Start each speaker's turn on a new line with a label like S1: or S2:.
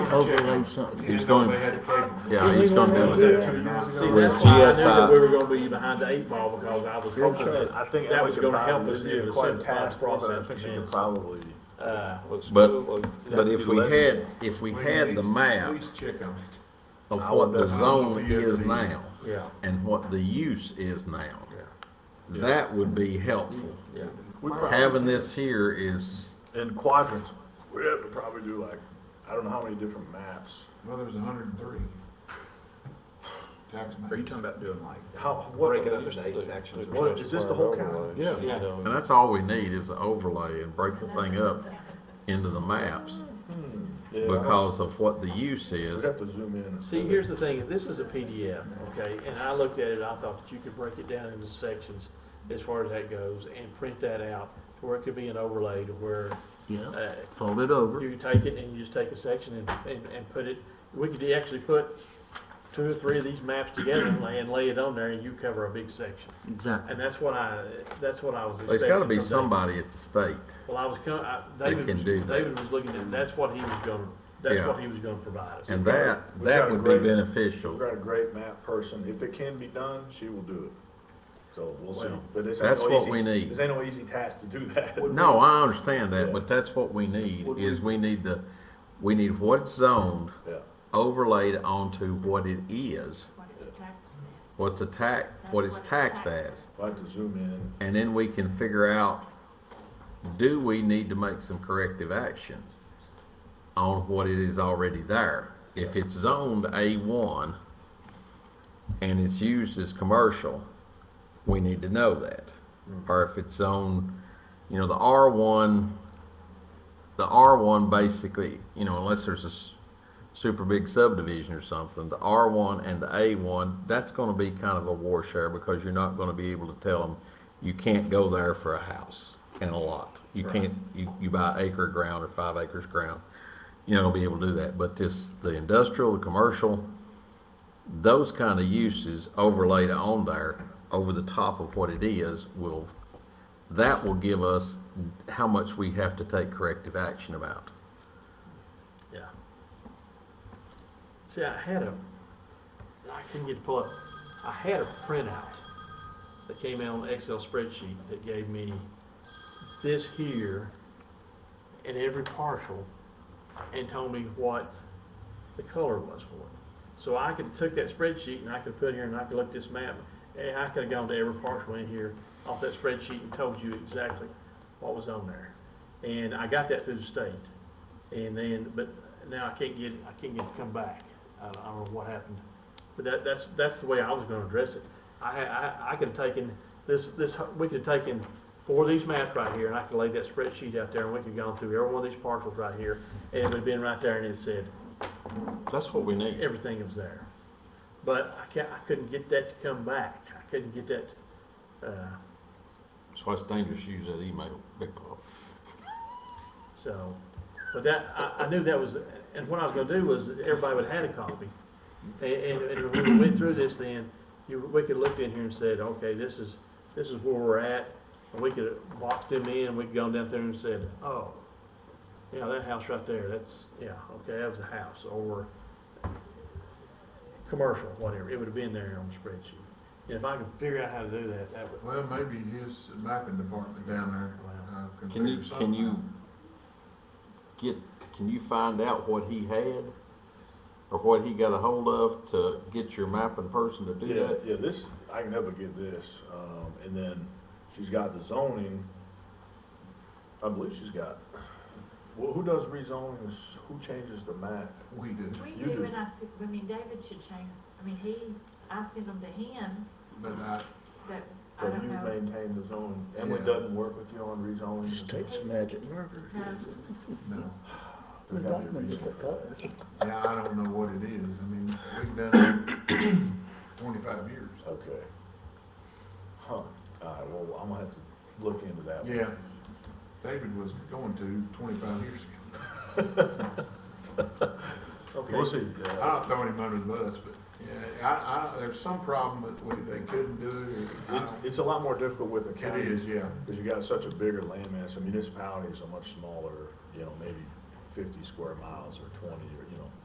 S1: overlay something.
S2: He's going,
S3: They had to pay them.
S2: yeah, he's going to do it.
S4: See, that's
S2: With
S4: why I knew that
S1: uh,
S2: GSI.
S4: we were gonna be behind the eight ball, because I was hoping that,
S5: I think
S4: that was
S5: could
S4: gonna
S5: probably-
S4: help us
S5: it'd
S4: in
S5: be
S4: the
S5: quite a
S4: simplified
S5: task, but I
S4: process
S5: think
S4: for
S5: you
S4: men.
S5: could probably.
S4: uh, was.
S2: But, but if we had,
S5: Eleven.
S2: if we
S3: We
S2: had the map
S3: Please check on it.
S2: of
S5: I
S2: what
S5: would
S2: the
S5: definitely
S2: zone
S3: for you to
S2: is
S3: be-
S2: now
S4: Yeah,
S2: and what the use is now,
S4: yeah,
S2: that would be helpful.
S4: yeah.
S5: we probably-
S2: Having this here is,
S5: In quadrants, we have to probably do like, I don't know how many different maps.
S3: Well, there's hundred and three. Tax maps.
S6: Are you talking about doing like,
S4: How- what-
S6: break it up into eight sections or
S4: What,
S6: something?
S4: is this the whole county?
S3: Yeah.
S4: Yeah.
S2: and that's all we need is an overlay and break the thing up into the maps
S5: Yeah,
S2: because of what the use
S5: We'd
S2: is.
S5: have to zoom in. and-
S4: See, here's the thing, if this is a PDF, okay, and I looked at it, I thought that you could break it down into sections as far as that goes, and print that out, to where it could be an overlay to where,
S1: Yeah,
S4: uh,
S1: fold it over.
S4: you take it and you just take a section and, and, and put it, we could actually put two or three of these maps together and lay, and lay it on there, and you cover a big section.
S1: Exactly.
S4: And that's what I, that's what I was expecting.
S2: There's gotta be
S4: from David.
S2: somebody at the state.
S4: Well, I was, co- I,
S2: They
S4: David,
S2: can do
S4: was-
S2: that.
S4: David was looking at, that's what he was gonna, that's
S2: Yeah.
S4: what he was gonna provide us.
S2: And that,
S5: We've got
S2: that
S5: a
S2: would be
S5: great- We've
S2: beneficial.
S5: got a great map person. If it can be done, she will do it. So we'll see.
S4: Well,
S5: But this ain't
S2: That's
S5: no
S2: what
S5: easy-
S2: we need.
S5: This ain't no easy task to do that.
S2: No, I understand that, but that's what we need, is we need the, we need what's zoned
S5: Yeah.
S2: overlaid onto what it is,
S7: What its taxes is.
S2: what's a tax, what it's taxed as.
S5: I'll have to zoom in.
S2: And then we can figure out, do we need to make some corrective action on what it is already there? If it's zoned A one and it's used as commercial, we need to know that. Or if it's zoned, you know, the R one, the R one basically, you know, unless there's a s- super big subdivision or something, the R one and the A one, that's gonna be kind of a war share because you're not gonna be able to tell them, you can't go there for a house and a lot. You can't, you, you buy acre of ground or five acres of ground, you know, be able to do that. But this, the industrial, the commercial, those kind of uses overlaid on there over the top of what it is will, that will give us how much we have to take corrective action about.
S4: Yeah. See, I had a, I couldn't get to pull up, I had a printout that came out on the Excel spreadsheet that gave me this here and every partial and told me what the color was for it. So I could took that spreadsheet and I could put here and I could look at this map, and I could have gone to every partial in here off that spreadsheet and told you exactly what was on there. And I got that through the state. And then, but now I can't get, I can't get it to come back. I don't- I don't know what happened. But that, that's, that's the way I was gonna address it. I, had- I, I could've taken this, this, we could've taken four of these maps right here and I could lay that spreadsheet out there and we could've gone through every one of these parcels right here. And it would've been right there and it said,
S2: That's what we need.
S4: everything was there. But I can't, I couldn't get that to come back. I couldn't get that, uh,
S2: That's why it's dangerous to use that email, big club.
S4: so. But that, I, I knew that was, and what I was gonna do was, everybody would have had a copy. And, and, and when we went through this then, you, we could looked in here and said, okay, this is, this is where we're at. And we could have boxed them in, we'd gone down there and said, oh, yeah, that house right there, that's, yeah, okay, that was a house, or commercial, whatever, it would have been there on the spreadsheet. And if I could figure out how to do that, that would,
S3: Well, maybe his mapping department down there. uh,
S2: Can you,
S3: figure something
S2: can you
S3: out.
S2: get, can you find out what he had? Or what he got a hold of to get your mapping person to do
S5: Yeah,
S2: that?
S5: yeah, this, I can never get this. Um, and then she's got the zoning. I believe she's got, well, who does rezonings? Who changes the map?
S3: We do.
S7: We
S2: Mm-hmm.
S3: You
S7: do, and I said, I mean, David should change, I mean, he, I sent them to him,
S3: But I,
S7: but I
S5: Or
S7: don't
S5: you
S7: know.
S5: maintain the zone? Emily
S3: Yeah.
S5: doesn't work with you on rezoning?
S1: Just takes a magic marker.
S7: No,
S3: no,
S5: There
S1: We've
S5: gotta
S1: got
S5: be a
S1: them
S5: reason.
S1: different colors.
S3: yeah, I don't know what it is. I mean, we've done it twenty-five years.
S5: Okay. Huh, all right, well, I'm gonna have to look into that one.
S3: Yeah, David was going to twenty-five years ago.
S4: okay.
S5: We'll see.
S3: I'm not throwing him under the bus, but, yeah, I, I, there's some problem that we, they couldn't do it. I
S5: It's,
S3: don't-
S5: it's a lot more difficult with the
S3: It
S5: county.
S3: is, yeah.
S5: Because you got such a bigger landmass, the municipalities are much smaller, you know, maybe fifty square miles or twenty